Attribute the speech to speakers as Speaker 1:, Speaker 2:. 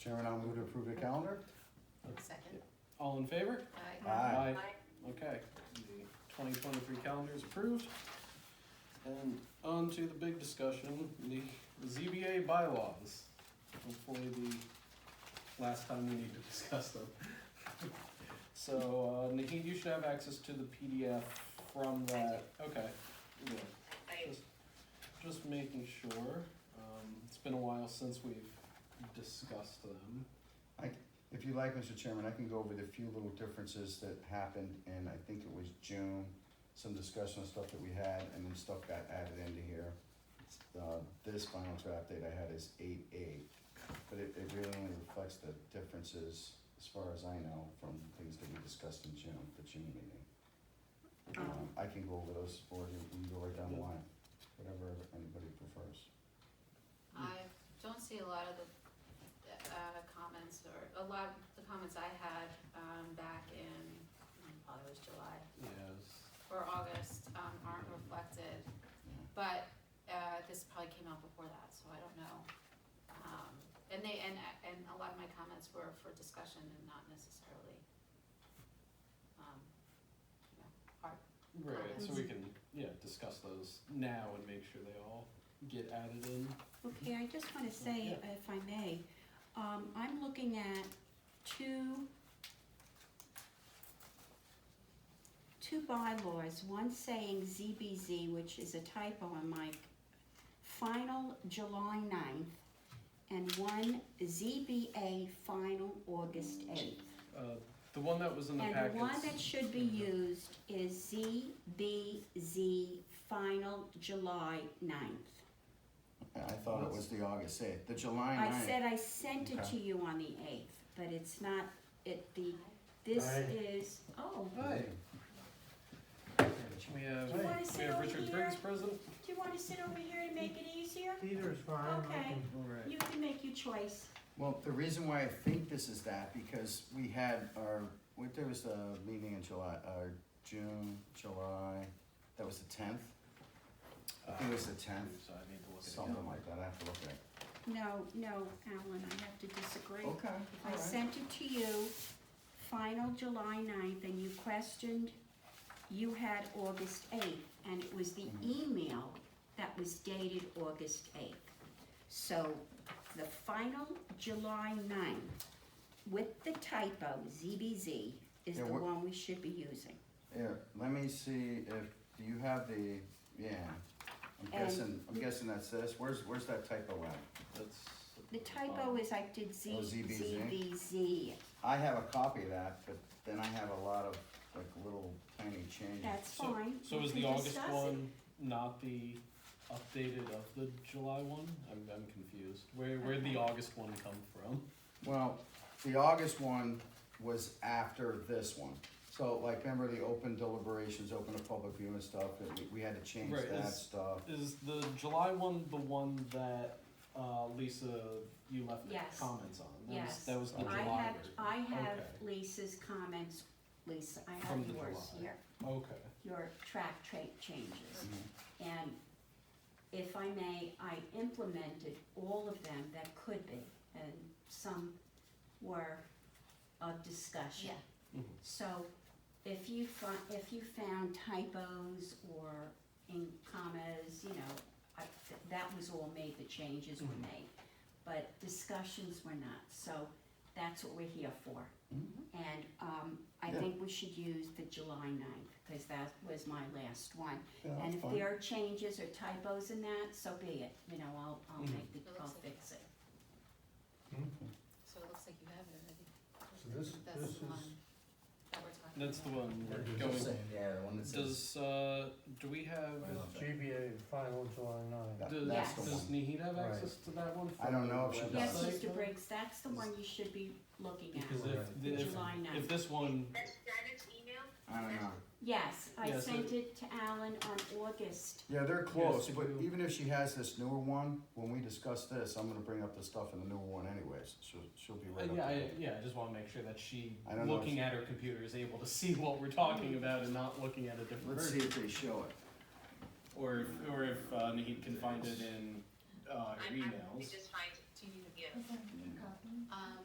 Speaker 1: Chairman, I'll move to approve the calendar.
Speaker 2: Second.
Speaker 3: All in favor?
Speaker 2: Aye.
Speaker 1: Aye.
Speaker 3: Okay, the twenty twenty-three calendar is approved. And on to the big discussion, the ZBA bylaws. Hopefully the last time we need to discuss them. So, uh, Naheed, you should have access to the PDF from that, okay, yeah. Just- Just making sure, um, it's been a while since we've discussed them.
Speaker 1: If you like, Mr. Chairman, I can go over the few little differences that happened in, I think it was June, some discussion on stuff that we had, and then stuff got added into here. Uh, this final draft date I had is eight eight, but it, it really only reflects the differences, as far as I know, from things that we discussed in June, the June meeting. Um, I can go over those for you, we can go right down the line, whatever anybody prefers.
Speaker 2: I don't see a lot of the, uh, comments or, a lot of the comments I had, um, back in, mm, probably was July
Speaker 3: Yes.
Speaker 2: or August, um, aren't reflected. But, uh, this probably came out before that, so I don't know. Um, and they, and, and a lot of my comments were for discussion and not necessarily, um, you know, hard.
Speaker 3: Right, so we can, yeah, discuss those now and make sure they all get added in.
Speaker 4: Okay, I just wanna say, if I may, um, I'm looking at two, two bylaws, one saying ZBZ, which is a typo on my final July 9th, and one ZBA final August eighth.
Speaker 3: Uh, the one that was in the
Speaker 4: And
Speaker 3: packets.
Speaker 4: the one that should be used is ZBZ final July 9th.
Speaker 1: And I thought it was the August eighth, the July
Speaker 4: I
Speaker 1: ninth.
Speaker 4: said I sent it to
Speaker 1: Okay.
Speaker 4: you on the eighth, but it's not, it, the, this
Speaker 5: Aye.
Speaker 4: is, oh,
Speaker 3: Hi. We have,
Speaker 5: Do
Speaker 4: you wanna sit
Speaker 3: we have
Speaker 4: over
Speaker 3: Richard
Speaker 4: here?
Speaker 3: Briggs present.
Speaker 4: do you wanna sit over here to make it easier?
Speaker 5: Peter's fine, I
Speaker 4: Okay.
Speaker 5: can,
Speaker 3: All right.
Speaker 4: You can make your choice.
Speaker 1: Well, the reason why I think this is that, because we had our, what, there was a meeting in July, uh, June, July, that was the tenth? I think it was the tenth,
Speaker 3: Uh, So I need to look at
Speaker 1: something like that, I have to look at it.
Speaker 4: No, no, Alan, I have to disagree.
Speaker 1: Okay,
Speaker 4: I
Speaker 1: alright.
Speaker 4: sent it to you, final July 9th, and you questioned, you had August eighth, and it was the
Speaker 1: Mm-hmm.
Speaker 4: email that was dated August eighth. So, the final July 9th, with the typo, ZBZ, is
Speaker 1: Yeah,
Speaker 4: the
Speaker 1: what-
Speaker 4: one we should be using.
Speaker 1: Here, let me see if, do you have the, yeah, I'm
Speaker 4: And-
Speaker 1: guessing, I'm guessing that's this, where's, where's that typo at?
Speaker 3: That's.
Speaker 4: The typo is I did Z,
Speaker 1: Oh, ZBZ.
Speaker 4: ZBZ,
Speaker 1: I have a copy of that, but then I have a lot of, like, little tiny changes.
Speaker 4: that's
Speaker 3: So-
Speaker 4: fine.
Speaker 3: So
Speaker 4: we
Speaker 3: is
Speaker 4: can
Speaker 3: the August
Speaker 4: discuss it.
Speaker 3: one not the updated of the July one? I'm, I'm confused. Where, where'd the
Speaker 4: Okay.
Speaker 3: August one come from?
Speaker 1: Well, the August one was after this one. So like, remember the open deliberations, open to public view and stuff, that we, we had to change
Speaker 3: Right,
Speaker 1: that
Speaker 3: is-
Speaker 1: stuff.
Speaker 3: Is the July one the one that, uh, Lisa, you left the
Speaker 4: Yes.
Speaker 3: comments on? That was-
Speaker 4: Yes.
Speaker 3: That was the
Speaker 4: I
Speaker 3: July
Speaker 4: have,
Speaker 3: version.
Speaker 4: I have
Speaker 3: Okay.
Speaker 4: Lisa's comments, Lisa, I
Speaker 3: From
Speaker 4: have
Speaker 3: the
Speaker 4: yours
Speaker 3: July.
Speaker 4: here,
Speaker 3: Okay.
Speaker 4: your track trait changes. And if I may, I implemented all of them that could be, and some were of discussion.
Speaker 2: Yeah.
Speaker 3: Mhm.
Speaker 4: So if you fi- if you found typos or in commas, you know, I, th- that was all made, the changes were
Speaker 3: Mhm.
Speaker 4: made. But discussions were not, so that's what we're here for.
Speaker 1: Mhm.
Speaker 4: And, um, I
Speaker 1: Yeah.
Speaker 4: think we should use the July ninth, cause that was my last one.
Speaker 1: Yeah, that's
Speaker 4: And if
Speaker 1: fine.
Speaker 4: there are changes or typos in that, so be it, you know, I'll, I'll
Speaker 3: Mhm.
Speaker 4: make the,
Speaker 2: It looks
Speaker 4: I'll
Speaker 2: like-
Speaker 4: fix it.
Speaker 2: So it looks like you have it already.
Speaker 5: So this-
Speaker 2: That's
Speaker 5: this
Speaker 2: the
Speaker 5: is-
Speaker 2: one That we're talking about.
Speaker 3: That's the one
Speaker 5: Yeah,
Speaker 3: we're
Speaker 5: it's
Speaker 3: going.
Speaker 1: Yeah, the one that
Speaker 3: Does uh, do we have?
Speaker 5: it's GBA final July nine.
Speaker 1: That-
Speaker 3: Does,
Speaker 1: that's
Speaker 4: Yes.
Speaker 1: the
Speaker 3: does
Speaker 1: one.
Speaker 3: Nihita have
Speaker 5: Right.
Speaker 3: access to that one?
Speaker 1: I don't
Speaker 3: from
Speaker 1: know
Speaker 3: the
Speaker 1: if she
Speaker 4: Yes,
Speaker 1: does.
Speaker 3: website?
Speaker 4: Mr. Briggs, that's the one you should be looking
Speaker 3: Because
Speaker 4: at,
Speaker 3: if, the- if,
Speaker 4: July
Speaker 3: if
Speaker 4: ninth.
Speaker 3: this one,
Speaker 1: I don't know.
Speaker 4: Yes, I
Speaker 3: Yeah, so-
Speaker 4: sent it to Alan on August,
Speaker 1: Yeah, they're close,
Speaker 3: Yes,
Speaker 1: but
Speaker 3: you-
Speaker 1: even if she has this newer one, when we discuss this, I'm gonna bring up the stuff in the newer one anyways. She'll, she'll be
Speaker 3: uh,
Speaker 1: right up
Speaker 3: yeah, I,
Speaker 1: there.
Speaker 3: yeah, I just want to make sure that she,
Speaker 1: I don't know
Speaker 3: looking at her computer, is able to see what we're talking about and not looking at a different
Speaker 1: Let's see
Speaker 3: version.
Speaker 1: if they show it.
Speaker 3: Or if, or if uh, Nahid can find it in uh, her
Speaker 6: I'm, I'm
Speaker 3: emails.
Speaker 6: just fine. Do you need to give?
Speaker 1: Yeah.
Speaker 2: Copy. Um,